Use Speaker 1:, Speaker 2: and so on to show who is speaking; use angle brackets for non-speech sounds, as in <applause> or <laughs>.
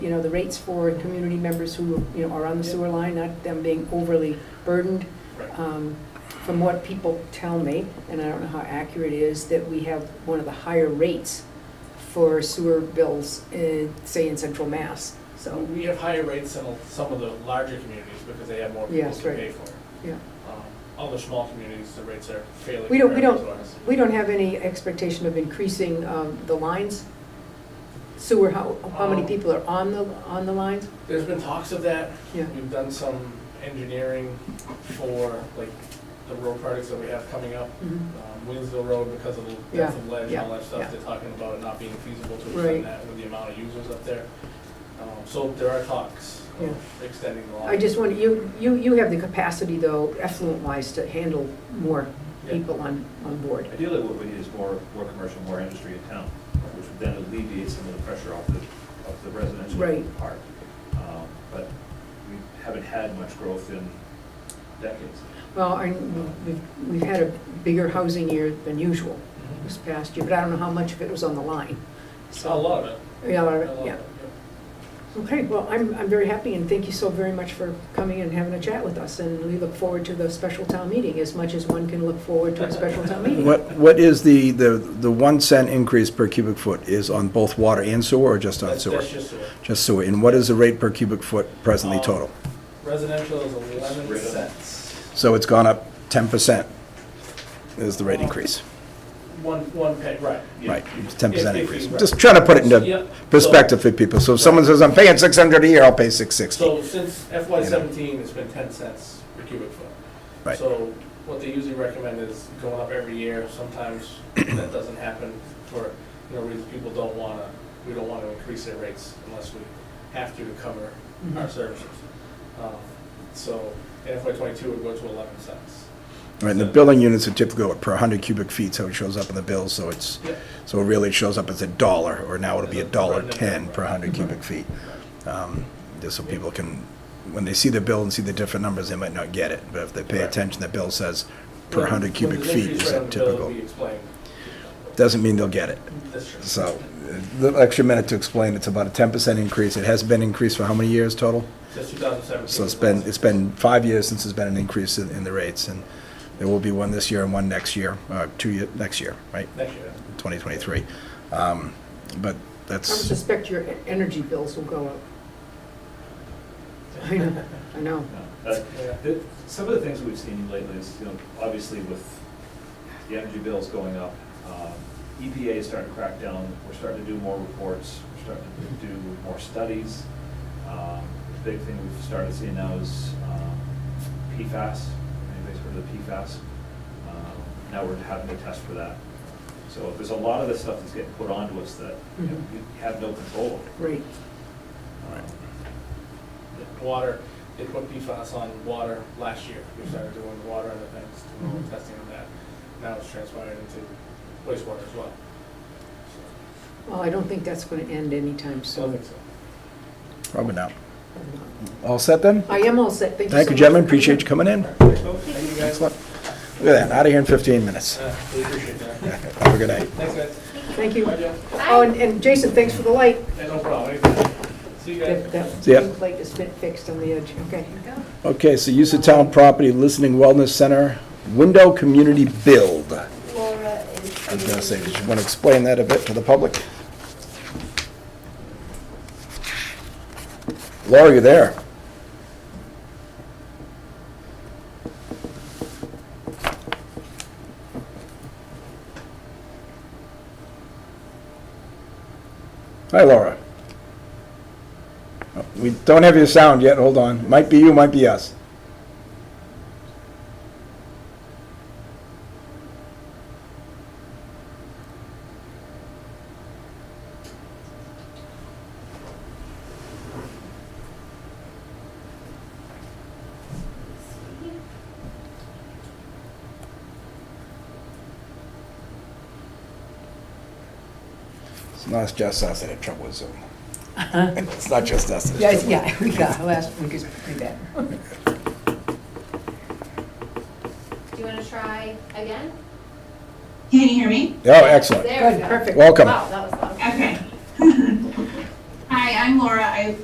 Speaker 1: you know, the rates for community members who, you know, are on the sewer line, not them being overly burdened.
Speaker 2: Right.
Speaker 1: Um, From what people tell me, and I don't know how accurate it is, that we have one of the higher rates for sewer bills, in, say, in central Mass, so,
Speaker 2: We have higher rates than some of the larger communities because they have more people
Speaker 1: Yes,
Speaker 2: to
Speaker 1: right.
Speaker 2: pay for. it.
Speaker 1: yeah.
Speaker 2: Um, All the small communities, the rates are fairly
Speaker 1: We don't- we
Speaker 2: comparable
Speaker 1: don't-
Speaker 2: to ours.
Speaker 1: We don't have any expectation of increasing um, the lines? Sewer, how, how many
Speaker 2: Um,
Speaker 1: people are on the, on the lines?
Speaker 2: There's been talks of that.
Speaker 1: Yeah.
Speaker 2: We've done some engineering for like the road projects that we have coming up.
Speaker 1: Mhm.
Speaker 2: Um, Winslow Road because of the
Speaker 1: Yeah,
Speaker 2: depth of ledge and all
Speaker 1: yeah,
Speaker 2: that
Speaker 1: yeah.
Speaker 2: stuff, they're talking about it not being feasible to
Speaker 1: Right.
Speaker 2: extend that with the amount of users up there. Um, So there are talks of extending the line.
Speaker 1: I just wonder, you, you, you have the capacity though, effluent-wise, to handle more
Speaker 2: Yeah.
Speaker 1: people on, on board.
Speaker 3: Ideally, what we need is more, more commercial, more industry in town, which would then alleviate some of the pressure off the, off the residential
Speaker 1: Right.
Speaker 3: part. Um, But we haven't had much growth in decades.
Speaker 1: Well, and we've, we've had a bigger housing year than usual
Speaker 2: Mhm.
Speaker 1: this past year, but I don't know how much of it was on the line.
Speaker 2: A lot of it.
Speaker 1: Yeah,
Speaker 2: A
Speaker 1: all
Speaker 2: lot
Speaker 1: right,
Speaker 2: of
Speaker 1: yeah.
Speaker 2: it, yeah.
Speaker 1: Okay, well, I'm, I'm very happy and thank you so very much for coming and having a chat with us. And we look forward to the special town meeting as much as one can look forward to a special town meeting.
Speaker 4: What, what is the, the, the one cent increase per cubic foot is on both water and sewer or just on
Speaker 2: That's
Speaker 4: sewer?
Speaker 2: that's just sewer.
Speaker 4: Just sewer. And what is the rate per cubic foot presently
Speaker 2: Um,
Speaker 4: total?
Speaker 2: Residential is eleven
Speaker 3: Right on.
Speaker 2: cents.
Speaker 4: So it's gone up ten percent is the rate increase,
Speaker 2: One, one pay, right. yeah.
Speaker 4: right? Ten
Speaker 2: If-
Speaker 4: percent
Speaker 2: if you-
Speaker 4: increase.
Speaker 2: right.
Speaker 4: Just trying to put it
Speaker 2: Yeah,
Speaker 4: into
Speaker 2: so-
Speaker 4: perspective for people. So if someone says, I'm paying six hundred a year, I'll pay six sixty.
Speaker 2: So since FY seventeen, it's been ten cents per cubic foot.
Speaker 4: Right.
Speaker 2: So what they usually recommend is going up every year. Sometimes that doesn't happen for, you know, reasons people don't wanna, we don't wanna increase their rates unless we have to to cover our services. Um, So in FY twenty-two, it would go to eleven cents.
Speaker 4: Right, and the billing units are typically what, per hundred cubic feet, so it shows up in the bill, so it's,
Speaker 2: Yep.
Speaker 4: so it really shows up as a dollar, or now it'll be a dollar
Speaker 2: Right, right,
Speaker 4: ten per
Speaker 2: right.
Speaker 4: hundred cubic feet. Um, Just so people can, when they see the bill and see the different numbers, they might not get it, but if they pay
Speaker 2: Correct.
Speaker 4: attention, the bill says per
Speaker 2: When-
Speaker 4: hundred
Speaker 2: when
Speaker 4: cubic
Speaker 2: there's
Speaker 4: feet
Speaker 2: increase
Speaker 4: is
Speaker 2: rate on
Speaker 4: that
Speaker 2: the bill, it'll
Speaker 4: typical.
Speaker 2: be explained.
Speaker 4: Doesn't mean they'll get it.
Speaker 2: That's true.
Speaker 4: So, uh, the extra minute to explain, it's about a ten percent increase. It has been increased for how many years total?
Speaker 2: Since two thousand seventeen.
Speaker 4: So it's been, it's been five years since there's been an increase in, in the rates, and there will be one this year and one next year, uh, two year, next year, right?
Speaker 2: Next year.
Speaker 4: 2023. Um, But
Speaker 1: I would
Speaker 4: that's,
Speaker 1: suspect your e- energy bills will go up. I know, I
Speaker 2: <laughs>
Speaker 1: know.
Speaker 3: No, that-
Speaker 2: Yeah.
Speaker 3: that- Some of the things we've seen lately is, you know, obviously with the energy bills going up, um, EPA is starting to crack down, we're starting to do more reports, we're starting to do more studies. Um, The big thing we've started seeing now is um, PFAS, anybody's heard of the PFAS? Um, Now we're having to test for that. So there's a lot of this stuff that's getting put onto us that you know,
Speaker 1: Mhm.
Speaker 3: you have no control
Speaker 1: Great.
Speaker 3: over.
Speaker 4: Right.
Speaker 2: the water, they put PFAS on water last year. We started doing the water and the things, doing all the testing on that. Now it's transpired into wastewater as well.
Speaker 1: Well, I don't think that's going to end anytime
Speaker 2: So I
Speaker 1: soon.
Speaker 2: think so.
Speaker 4: probably not. All set then?
Speaker 1: I am all set. Thank you so much.
Speaker 4: Thank you, gentlemen,
Speaker 1: for coming
Speaker 4: appreciate
Speaker 1: in.
Speaker 4: you coming in.
Speaker 2: Thank you guys.
Speaker 4: Excellent. Look at that, out of here in 15 minutes.
Speaker 2: Uh, We appreciate that.
Speaker 4: Have a good night.
Speaker 2: Thanks, guys.
Speaker 1: Thank you.
Speaker 2: Bye, Jeff.
Speaker 1: Oh, and- and Jason, thanks for the light.
Speaker 2: Yeah, no problem. Anytime. See you guys.
Speaker 1: That, that
Speaker 4: See ya.
Speaker 1: plate is fit- fixed on the edge, okay.
Speaker 4: Okay, so use of town property, listening wellness center, window community build. I
Speaker 5: Laura is.
Speaker 4: was gonna say, did you want to explain that a bit to the public? Laura, you there? Hi, Laura. Oh, We don't have your sound yet, hold on. Might be you, might be us. It's not just us that have trouble with Zoom. <laughs> It's not just us. that have trouble.
Speaker 1: yeah, <laughs> we got, last week is pretty bad.
Speaker 5: Do you want to try again?
Speaker 6: Can you hear me?
Speaker 4: Oh, excellent.
Speaker 5: There we
Speaker 1: Good,
Speaker 5: go.
Speaker 1: perfect.
Speaker 4: Welcome.
Speaker 5: Wow, that was loud.
Speaker 6: Okay. <laughs> Hi, Hi, I'm Laura. I